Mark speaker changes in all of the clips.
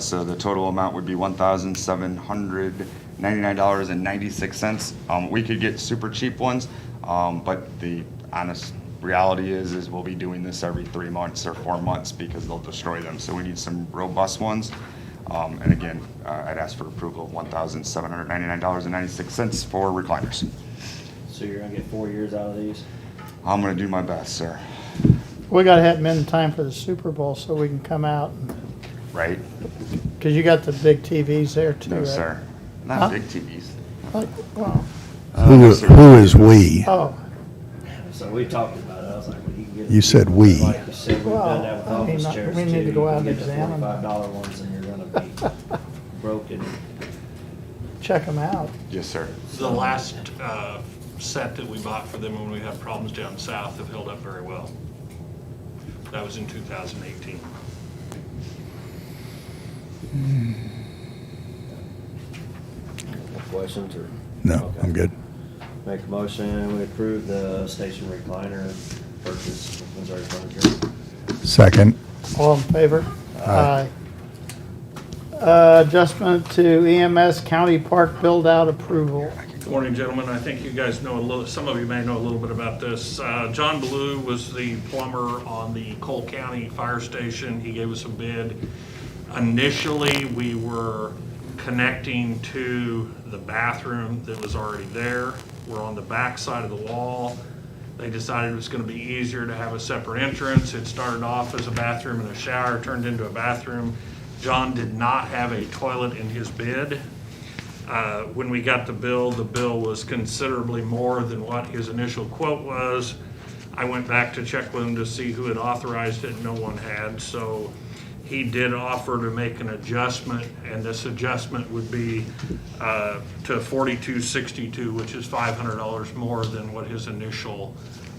Speaker 1: So the total amount would be $1,799.96. Um, We could get super cheap ones, um, but the honest reality is, is we'll be doing this every three months or four months because they'll destroy them. So we need some robust ones. Um, And again, uh, I'd ask for approval of $1,799.96 for recliners.
Speaker 2: So you're gonna get four years out of these?
Speaker 1: I'm going to do my best, sir.
Speaker 3: We gotta have them in time for the Super Bowl so we can come out,
Speaker 1: Right?
Speaker 3: because you got the big TVs there too,
Speaker 1: No,
Speaker 3: right?
Speaker 1: sir.
Speaker 3: Huh?
Speaker 1: Not big TVs.
Speaker 3: Like, well,
Speaker 4: Who, who is we?
Speaker 3: Oh,
Speaker 2: So we talked about it, I was like, well, you can get.
Speaker 4: You said we.
Speaker 2: Like you said, we've done that with
Speaker 3: Well, I mean,
Speaker 2: office
Speaker 3: I-
Speaker 2: chairs too.
Speaker 3: we need to
Speaker 2: You
Speaker 3: go
Speaker 2: can
Speaker 3: out and
Speaker 2: get the
Speaker 3: examine.
Speaker 2: Forty-five dollar ones and you're gonna be broken.
Speaker 3: check them out.
Speaker 1: Yes, sir.
Speaker 5: The last uh, set that we bought for them when we had problems down south have held up very well. That was in 2018.
Speaker 2: No Questions or?
Speaker 4: No,
Speaker 2: Okay.
Speaker 4: I'm good.
Speaker 2: Make a motion, we approve the station recliner purchase from Missouri Furniture.
Speaker 4: Second,
Speaker 3: All in favor? Aye. Uh, Adjustment to EMS County Park build-out approval.
Speaker 5: Good morning, gentlemen. I think you guys know a little, some of you may know a little bit about this. Uh, John Blue was the plumber on the Cole County Fire Station. He gave us a bid. Initially, we were connecting to the bathroom that was already there. We're on the back side of the wall. They decided it was going to be easier to have a separate entrance. It started off as a bathroom and a shower, turned into a bathroom. John did not have a toilet in his bid. Uh, When we got the bill, the bill was considerably more than what his initial quote was. I went back to check with him to see who had authorized it, and no one had, so he did offer to make an adjustment, and this adjustment would be uh, to forty-two sixty-two, which is five hundred dollars more than what his initial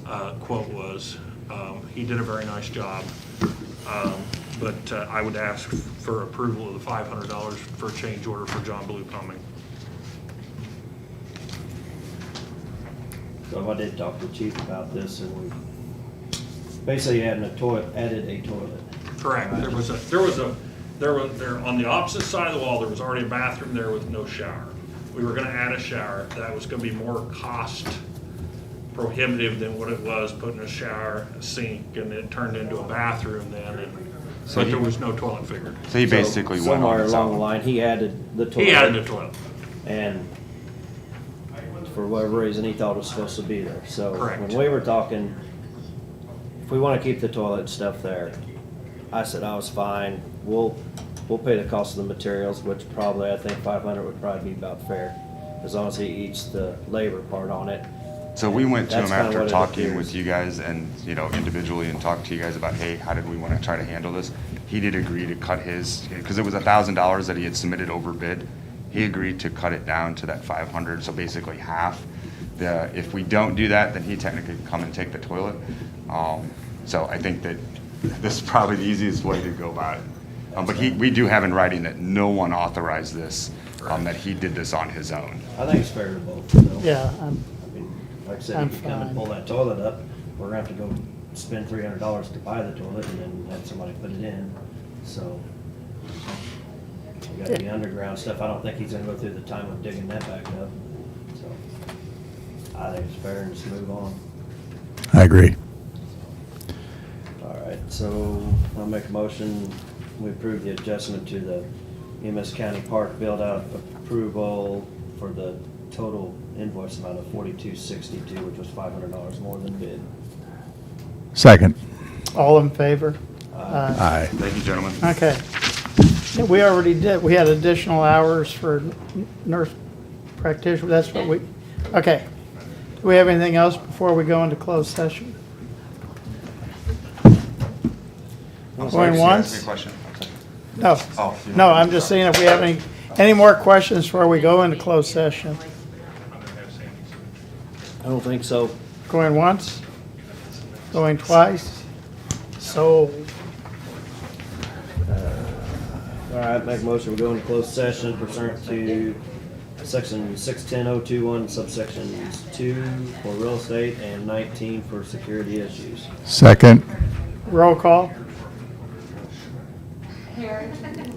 Speaker 5: uh, quote was. Um, He did a very nice job, Um, but uh, I would ask for approval of the five hundred dollars for change order for John Blue Plumbing.
Speaker 2: So I did talk to the chief about this and we basically added a toilet, added a toilet.
Speaker 5: Correct, there was a, there was a, there was, there, on the opposite side of the wall, there was already a bathroom there with no shower. We were gonna add a shower, that was gonna be more cost prohibitive than what it was putting a shower, a sink, and it turned into a bathroom then, and,
Speaker 1: So
Speaker 5: but
Speaker 1: he-
Speaker 5: there was no toilet figured.
Speaker 1: So he basically
Speaker 2: So
Speaker 1: went on
Speaker 2: Somewhere
Speaker 1: his
Speaker 2: along the
Speaker 1: own.
Speaker 2: line, he added the toilet.
Speaker 5: He added a toilet,
Speaker 2: And for whatever reason, he thought it was supposed to be there, so.
Speaker 5: Correct.
Speaker 2: When we were talking, if we wanna keep the toilet and stuff there, I said I was fine, we'll, we'll pay the cost of the materials, which probably, I think five hundred would probably be about fair, as long as he eats the labor part on it.
Speaker 1: So we went to
Speaker 2: That's
Speaker 1: him
Speaker 2: kinda what
Speaker 1: after
Speaker 2: it
Speaker 1: talking
Speaker 2: appears.
Speaker 1: with you guys and, you know, individually and talked to you guys about, hey, how did we want to try to handle this? He did agree to cut his, because it was a thousand dollars that he had submitted over bid. He agreed to cut it down to that five hundred, so basically half. The, if we don't do that, then he technically can come and take the toilet. Um, so I think that this is probably the easiest way to go about it. Um, but he, we do have in writing that no one authorized this, um, that he did this on his own.
Speaker 2: I think it's fair to both, though.
Speaker 3: Yeah, I'm-
Speaker 2: I mean, Like I said,
Speaker 3: I'm
Speaker 2: if you come
Speaker 3: fine.
Speaker 2: and pull that toilet up, we're gonna have to go spend three hundred dollars to buy the toilet and then have somebody put it in, so. We got the underground stuff, I don't think he's gonna go through the time of digging that back up, so. I think it's fair and just move on.
Speaker 4: I agree.
Speaker 2: All right, so I'll make a motion, we approve the adjustment to the EMS County Park build-out approval for the total invoice amount of forty-two sixty-two, which was five hundred dollars more than bid.
Speaker 4: Second,
Speaker 3: all in favor?
Speaker 4: aye.
Speaker 1: Thank you, gentlemen.
Speaker 3: Okay. Yeah, We already did, we had additional hours for n- nurse practitioner, that's what we, okay. Do we have anything else before we go into closed session?
Speaker 1: I'm
Speaker 3: Going
Speaker 1: sorry, just ask me
Speaker 3: once?
Speaker 1: a question. I'm sorry.
Speaker 3: No.
Speaker 1: Oh, you
Speaker 3: No,
Speaker 1: don't-
Speaker 3: I'm just seeing if we have any, any more questions before we go into closed session.
Speaker 2: I don't think so.
Speaker 3: Going once, going twice, so,
Speaker 2: All right, make a motion, we go into closed session pursuant to section six-ten oh two-one, subsections two for real estate and nineteen for security issues.
Speaker 4: Second,
Speaker 3: roll call.
Speaker 6: Harris.